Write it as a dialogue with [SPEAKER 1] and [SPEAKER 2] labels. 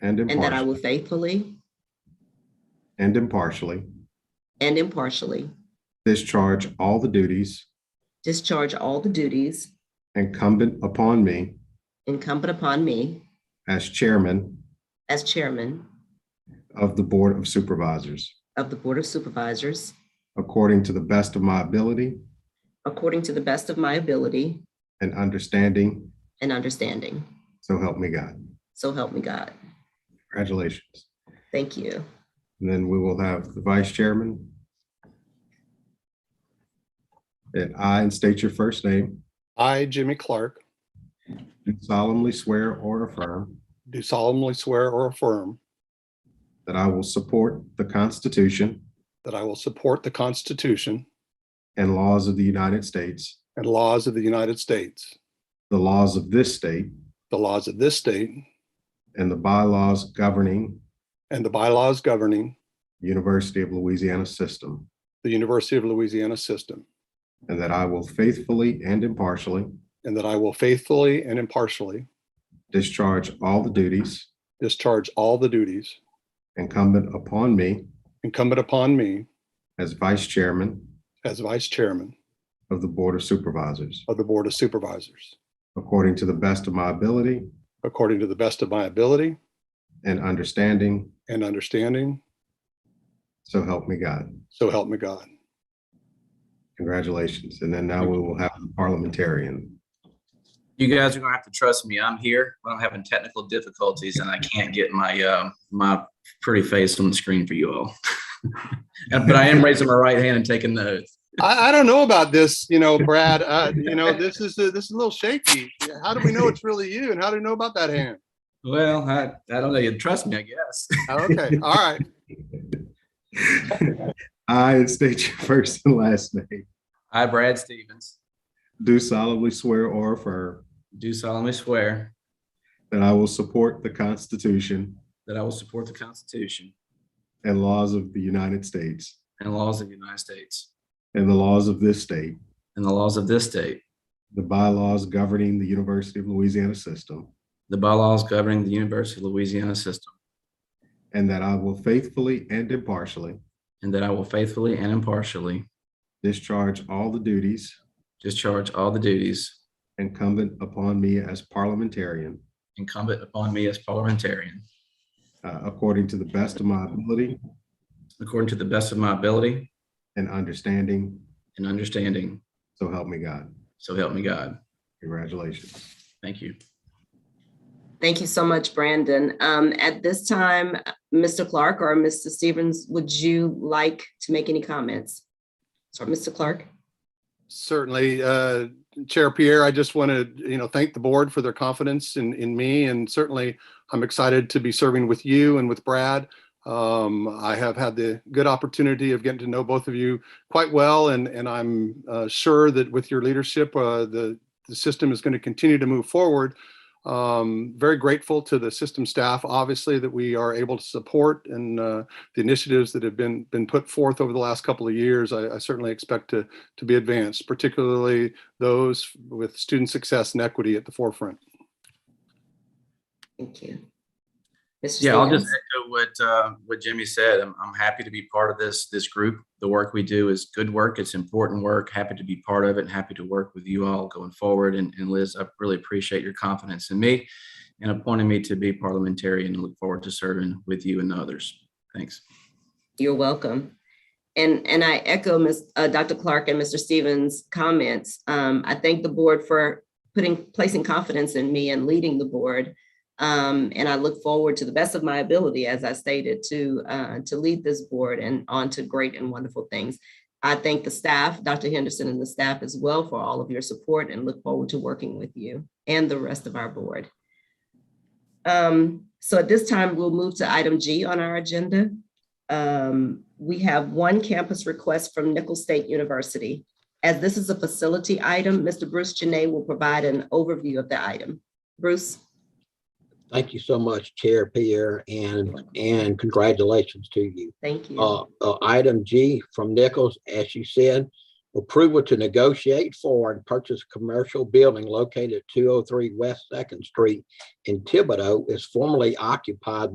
[SPEAKER 1] and
[SPEAKER 2] and that I
[SPEAKER 1] impartially,
[SPEAKER 2] will faithfully
[SPEAKER 1] and impartially
[SPEAKER 2] and impartially
[SPEAKER 1] discharge all the duties
[SPEAKER 2] discharge all the duties
[SPEAKER 1] incumbent upon me
[SPEAKER 2] incumbent upon me
[SPEAKER 1] as chairman
[SPEAKER 2] as chairman
[SPEAKER 1] of the Board of Supervisors,
[SPEAKER 2] of the Board of Supervisors
[SPEAKER 1] according to the best of my ability
[SPEAKER 2] according to the best of my ability
[SPEAKER 1] and understanding,
[SPEAKER 2] and understanding.
[SPEAKER 1] so help me God.
[SPEAKER 2] So help me God.
[SPEAKER 1] Congratulations.
[SPEAKER 2] Thank you.
[SPEAKER 1] And then we will have the vice chairman. And I, and state your first name,
[SPEAKER 3] I, Jimmy Clark,
[SPEAKER 1] do solemnly swear or affirm
[SPEAKER 3] do solemnly swear or affirm
[SPEAKER 1] that I will support the Constitution
[SPEAKER 3] that I will support the Constitution
[SPEAKER 1] and laws of the United States,
[SPEAKER 3] and laws of the United States,
[SPEAKER 1] the laws of this state,
[SPEAKER 3] the laws of this state,
[SPEAKER 1] and the bylaws governing
[SPEAKER 3] and the bylaws governing
[SPEAKER 1] University of Louisiana system,
[SPEAKER 3] the University of Louisiana system,
[SPEAKER 1] and that I will faithfully and impartially
[SPEAKER 3] and that I will faithfully and impartially
[SPEAKER 1] discharge all the duties
[SPEAKER 3] discharge all the duties
[SPEAKER 1] incumbent upon me
[SPEAKER 3] incumbent upon me
[SPEAKER 1] as vice chairman
[SPEAKER 3] as Vice Chairman
[SPEAKER 1] of the Board of Supervisors,
[SPEAKER 3] of the Board of Supervisors,
[SPEAKER 1] according to the best of my ability
[SPEAKER 3] according to the best of my ability
[SPEAKER 1] and understanding,
[SPEAKER 3] and understanding,
[SPEAKER 1] so help me God.
[SPEAKER 3] so help me God.
[SPEAKER 1] Congratulations. And then now we will have the parliamentarian.
[SPEAKER 4] You guys are gonna have to trust me. I'm here, but I'm having technical difficulties and I can't get my, um my pretty face on the screen for you all. But I am raising my right hand and taking the oath.
[SPEAKER 3] I, I don't know about this, you know, Brad. Uh, you know, this is a, this is a little shaky. How do we know it's really you? And how do we know about that hand?
[SPEAKER 4] Well, I, I don't know. You trust me, I guess.
[SPEAKER 3] Okay, all right.
[SPEAKER 1] I, and state your first and last name,
[SPEAKER 4] I, Brad Stevens,
[SPEAKER 1] do solemnly swear or affirm
[SPEAKER 4] do solemnly swear
[SPEAKER 1] that I will support the Constitution
[SPEAKER 4] that I will support the Constitution
[SPEAKER 1] and laws of the United States
[SPEAKER 4] and laws of the United States
[SPEAKER 1] and the laws of this state,
[SPEAKER 4] and the laws of this state,
[SPEAKER 1] the bylaws governing the University of Louisiana system,
[SPEAKER 4] the bylaws governing the University of Louisiana system,
[SPEAKER 1] and that I will faithfully and impartially
[SPEAKER 4] and that I will faithfully and impartially
[SPEAKER 1] discharge all the duties
[SPEAKER 4] discharge all the duties
[SPEAKER 1] incumbent upon me as parliamentarian
[SPEAKER 4] incumbent upon me as parliamentarian
[SPEAKER 1] uh, according to the best of my ability
[SPEAKER 4] according to the best of my ability
[SPEAKER 1] and understanding,
[SPEAKER 4] and understanding.
[SPEAKER 1] so help me God.
[SPEAKER 4] So help me God.
[SPEAKER 1] Congratulations.
[SPEAKER 4] Thank you.
[SPEAKER 2] Thank you so much, Brandon. Um, At this time, Mr. Clark or Mr. Stevens, would you like to make any comments? Sorry, Mr. Clark?
[SPEAKER 3] Certainly, uh, Chair Pierre, I just want to, you know, thank the board for their confidence in, in me. And certainly, I'm excited to be serving with you and with Brad. Um, I have had the good opportunity of getting to know both of you quite well. And, and I'm uh, sure that with your leadership, uh, the, the system is going to continue to move forward. Um, Very grateful to the system staff, obviously, that we are able to support and uh, the initiatives that have been, been put forth over the last couple of years. I I certainly expect to to be advanced, particularly those with student success and equity at the forefront.
[SPEAKER 2] Thank you. Mr.
[SPEAKER 4] Yeah, I'll just
[SPEAKER 2] Stevens?
[SPEAKER 4] echo what, uh, what Jimmy said. I'm, I'm happy to be part of this, this group. The work we do is good work. It's important work. Happy to be part of it and happy to work with you all going forward. And, and Liz, I really appreciate your confidence in me and appointing me to be parliamentarian and look forward to serving with you and others. Thanks.
[SPEAKER 2] You're welcome. And, and I echo Ms., uh, Dr. Clark and Mr. Stevens' comments. Um, I thank the board for putting, placing confidence in me and leading the board. Um, and I look forward to the best of my ability, as I stated, to, uh, to lead this board and on to great and wonderful things. I thank the staff, Dr. Henderson and the staff as well for all of your support and look forward to working with you and the rest of our board. Um, so at this time, we'll move to item G on our agenda. Um, we have one campus request from Nickel State University. As this is a facility item, Mr. Bruce Janay will provide an overview of the item. Bruce?
[SPEAKER 5] Thank you so much, Chair Pierre, and, and congratulations to you.
[SPEAKER 2] Thank you.
[SPEAKER 5] Uh, uh, item G from Nichols, as you said, approval to negotiate for and purchase commercial building located at two oh three West Second Street in Thibodeau is formerly occupied